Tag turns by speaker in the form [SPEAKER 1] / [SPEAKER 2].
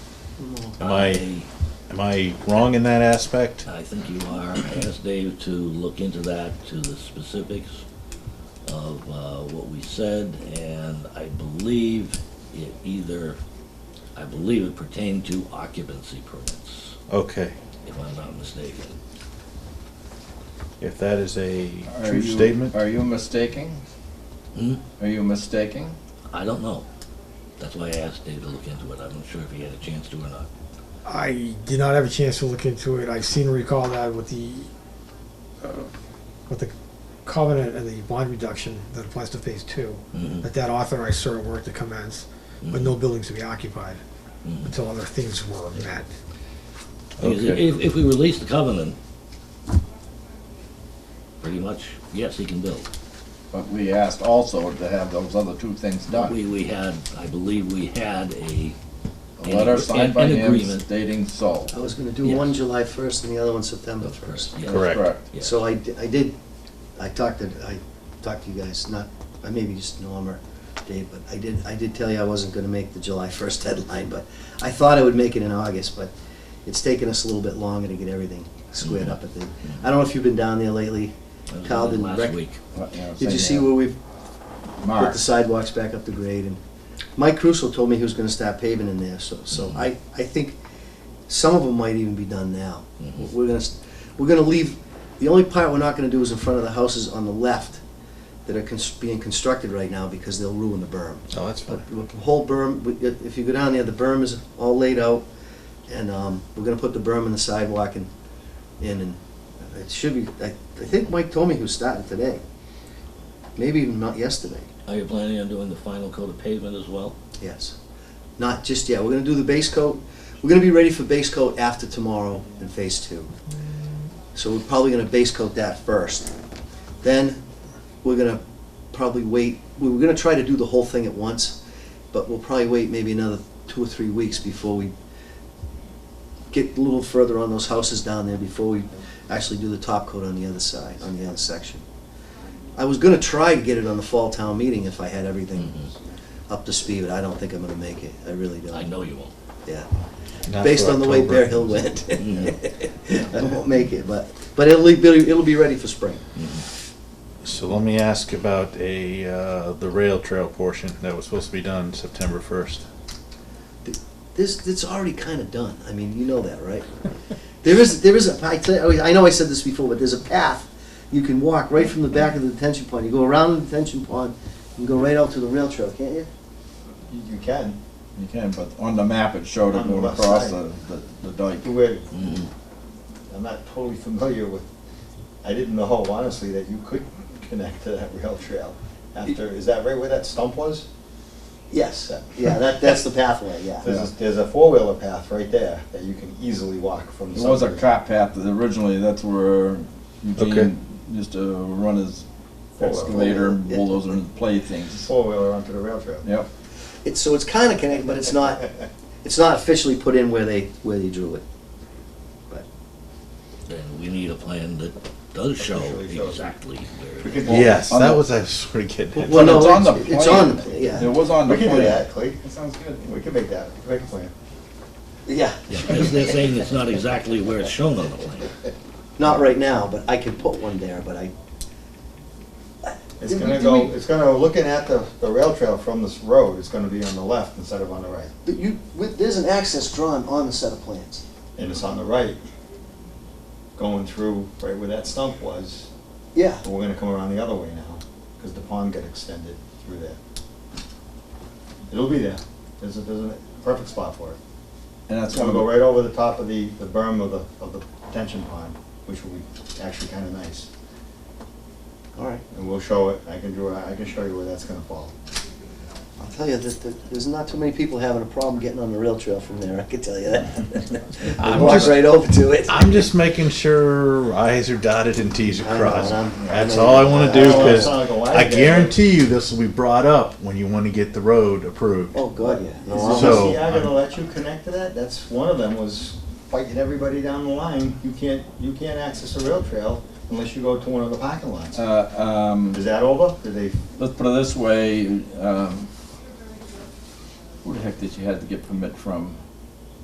[SPEAKER 1] Am I, am I wrong in that aspect?
[SPEAKER 2] I think you are. I asked Dave to look into that, to the specifics of uh, what we said, and I believe it either, I believe it pertained to occupancy permits,
[SPEAKER 1] Okay,
[SPEAKER 2] if I'm not mistaken.
[SPEAKER 1] if that is a
[SPEAKER 3] Are
[SPEAKER 1] true
[SPEAKER 3] you-
[SPEAKER 1] statement,
[SPEAKER 3] Are you mistaking?
[SPEAKER 2] Hmm?
[SPEAKER 3] Are you mistaking?
[SPEAKER 2] I don't know. That's why I asked Dave to look into it. I'm not sure if he had a chance to or not.
[SPEAKER 4] I did not have a chance to look into it. I seem to recall that with the, uh, with the covenant and the bond reduction that applies to phase two,
[SPEAKER 2] Mhm.
[SPEAKER 4] that that authorized certain work to commence, Mm-hmm.
[SPEAKER 2] Mm-hmm.
[SPEAKER 4] but no buildings to be occupied until other things were met.
[SPEAKER 1] Okay.
[SPEAKER 2] Because Mm-hmm. If, if we release the covenant, pretty much, yes, he can build.
[SPEAKER 3] But we asked also to have those other two things done.
[SPEAKER 2] We, we had, I believe we had a.
[SPEAKER 3] A letter signed by
[SPEAKER 2] an
[SPEAKER 3] him
[SPEAKER 2] agreement.
[SPEAKER 3] stating so.
[SPEAKER 5] I was gonna do
[SPEAKER 2] Yes.
[SPEAKER 5] one July first and the other one September
[SPEAKER 2] That's
[SPEAKER 5] first.
[SPEAKER 2] correct, yes.
[SPEAKER 3] That's
[SPEAKER 1] Correct.
[SPEAKER 2] Yeah.
[SPEAKER 5] So I, di- I did, I talked to, I talked to you guys, not, I maybe just Norm or Dave, but I did, I did tell you I wasn't gonna make the July first deadline, but I thought I would make it in August, but it's taken us a little bit longer to get everything squared up at the, I don't know if you've been down there lately,
[SPEAKER 2] That was
[SPEAKER 5] Kyle didn't
[SPEAKER 2] Last
[SPEAKER 5] rec-
[SPEAKER 2] week.
[SPEAKER 3] What, know,
[SPEAKER 5] did
[SPEAKER 3] saying
[SPEAKER 5] you see
[SPEAKER 3] that.
[SPEAKER 5] where we've put
[SPEAKER 3] Mark,
[SPEAKER 5] the sidewalks back up to grade, and Mike Crusoe told me he was gonna start paving in there, so, so I, I think some of them might even be done now.
[SPEAKER 2] Mhm.
[SPEAKER 5] We're gonna, s- we're gonna leave, the only part we're not gonna do is in front of the houses on the left that are cons- being constructed right now, because they'll ruin the berm.
[SPEAKER 1] oh, that's fine.
[SPEAKER 5] But the whole berm, we- if you go down there, the berm is all laid out, and, um, we're gonna put the berm in the sidewalk and, in, and it should be, I, I think Mike told me he was starting today. Maybe even not yesterday.
[SPEAKER 2] Are you planning on doing the final coat of pavement as well?
[SPEAKER 5] Yes. Not just yet. We're gonna do the base coat. We're gonna be ready for base coat after tomorrow in phase two. So we're probably gonna base coat that first. Then we're gonna probably wait, we were gonna try to do the whole thing at once, but we'll probably wait maybe another two or three weeks before we get a little further on those houses down there before we actually do the top coat on the other side, on the other section. I was gonna try to get it on the fall town meeting if I had
[SPEAKER 2] Mm-hmm.
[SPEAKER 5] everything up to speed, but I don't think I'm gonna make it. I really
[SPEAKER 2] I
[SPEAKER 5] don't,
[SPEAKER 2] know you won't.
[SPEAKER 5] yeah.
[SPEAKER 1] Not
[SPEAKER 5] Based
[SPEAKER 1] for
[SPEAKER 5] on the way
[SPEAKER 1] October.
[SPEAKER 5] Bear Hill went.
[SPEAKER 2] Mhm.
[SPEAKER 5] I won't make it, but, but it'll be, it'll be ready for spring.
[SPEAKER 1] So let me ask about a, uh, the rail trail portion that was supposed to be done September first.
[SPEAKER 5] This, it's already kinda done. I mean, you know that, right? There is, there is, a I tell you, I know I said this before, but there's a path you can walk right from the back of the detention pond. You go around the detention pond and go right out to the rail trail, can't you?
[SPEAKER 6] You you can,
[SPEAKER 3] you can, but on the map it showed it
[SPEAKER 6] On the
[SPEAKER 3] going
[SPEAKER 6] left
[SPEAKER 3] across the,
[SPEAKER 6] side.
[SPEAKER 3] the- the dike.
[SPEAKER 6] where,
[SPEAKER 2] Mhm.
[SPEAKER 6] I'm not totally familiar with, I didn't know, honestly, that you could connect to that rail trail after, is that right where that stump was?
[SPEAKER 5] Yes. Yeah, that, that's the pathway, yeah.
[SPEAKER 6] There's, a- there's a four-wheeler path right there that you can easily walk from.
[SPEAKER 3] There was a
[SPEAKER 6] somewhere.
[SPEAKER 3] cop path, that originally that's where
[SPEAKER 1] Okay.
[SPEAKER 3] Eugene used to run his
[SPEAKER 6] That's the-
[SPEAKER 3] excavator and
[SPEAKER 5] yeah.
[SPEAKER 3] bulldozer and play things.
[SPEAKER 6] Four-wheeler onto the rail trail.
[SPEAKER 3] Yep,
[SPEAKER 5] It's, so it's kinda connected, but it's not, it's not officially put in where they, where they drew it.
[SPEAKER 2] Then we need a plan that does show
[SPEAKER 6] Officially shows.
[SPEAKER 2] exactly where.
[SPEAKER 6] We
[SPEAKER 2] it is.
[SPEAKER 6] could,
[SPEAKER 1] Yes,
[SPEAKER 3] on
[SPEAKER 1] that
[SPEAKER 3] the-
[SPEAKER 1] was, I was sort of getting at.
[SPEAKER 5] Well, no,
[SPEAKER 3] it's on the
[SPEAKER 5] it's on the,
[SPEAKER 3] plan.
[SPEAKER 5] plan, yeah.
[SPEAKER 3] it was on the
[SPEAKER 6] we could do
[SPEAKER 3] plan.
[SPEAKER 6] that, Clea. That sounds good. We could make that, we could make a plan.
[SPEAKER 5] Yeah,
[SPEAKER 2] Yeah, They're they're saying it's not exactly where it's shown on the plan.
[SPEAKER 5] not right now, but I could put one there, but I,
[SPEAKER 6] It's
[SPEAKER 5] Yeah, but
[SPEAKER 6] gonna
[SPEAKER 5] do
[SPEAKER 6] go,
[SPEAKER 5] we-
[SPEAKER 6] it's gonna, looking at the, the rail trail from this road, it's gonna be on the left instead of on the right.
[SPEAKER 5] but you, with- there's an access drawn on the set of plans.
[SPEAKER 6] And it's on the right, going through right where that stump was,
[SPEAKER 5] Yeah,
[SPEAKER 6] But we're gonna come around the other way now, because the pond got extended through there. It'll be there, there's a, there's a perfect spot for it.
[SPEAKER 3] And that's
[SPEAKER 6] It's gonna
[SPEAKER 3] one
[SPEAKER 6] go
[SPEAKER 3] of
[SPEAKER 6] right over the top of the, the berm of the, of the detention pond, which will be actually kinda nice.
[SPEAKER 5] all right.
[SPEAKER 6] And we'll show it, I can draw, I can show you where that's gonna fall.
[SPEAKER 5] I'll tell you, that that there's not too many people having a problem getting on the rail trail from there, I can tell you that. They
[SPEAKER 1] I'm
[SPEAKER 5] walk
[SPEAKER 1] just-
[SPEAKER 5] right over to it.
[SPEAKER 1] I'm just making sure I's are dotted and T's are
[SPEAKER 5] I know,
[SPEAKER 1] crossed.
[SPEAKER 5] and I'm-
[SPEAKER 1] That's
[SPEAKER 5] I know
[SPEAKER 1] all I
[SPEAKER 5] you-
[SPEAKER 1] wanna
[SPEAKER 6] I
[SPEAKER 1] do,
[SPEAKER 6] don't wanna
[SPEAKER 1] cause
[SPEAKER 6] sound like a
[SPEAKER 1] I
[SPEAKER 6] wagon guy,
[SPEAKER 1] guarantee you this will be brought up when you wanna get the road approved.
[SPEAKER 5] Oh, God, yeah. No,
[SPEAKER 6] Is
[SPEAKER 1] So-
[SPEAKER 5] I'm-
[SPEAKER 6] Asiago gonna let you connect to that? That's, one of them was fighting everybody down the line, you can't, you can't access the rail trail unless you go to one of the parking lots.
[SPEAKER 3] Uh, um,
[SPEAKER 6] Is that over? Did they
[SPEAKER 3] let's put it this way, um, who the heck did you have to get permit from?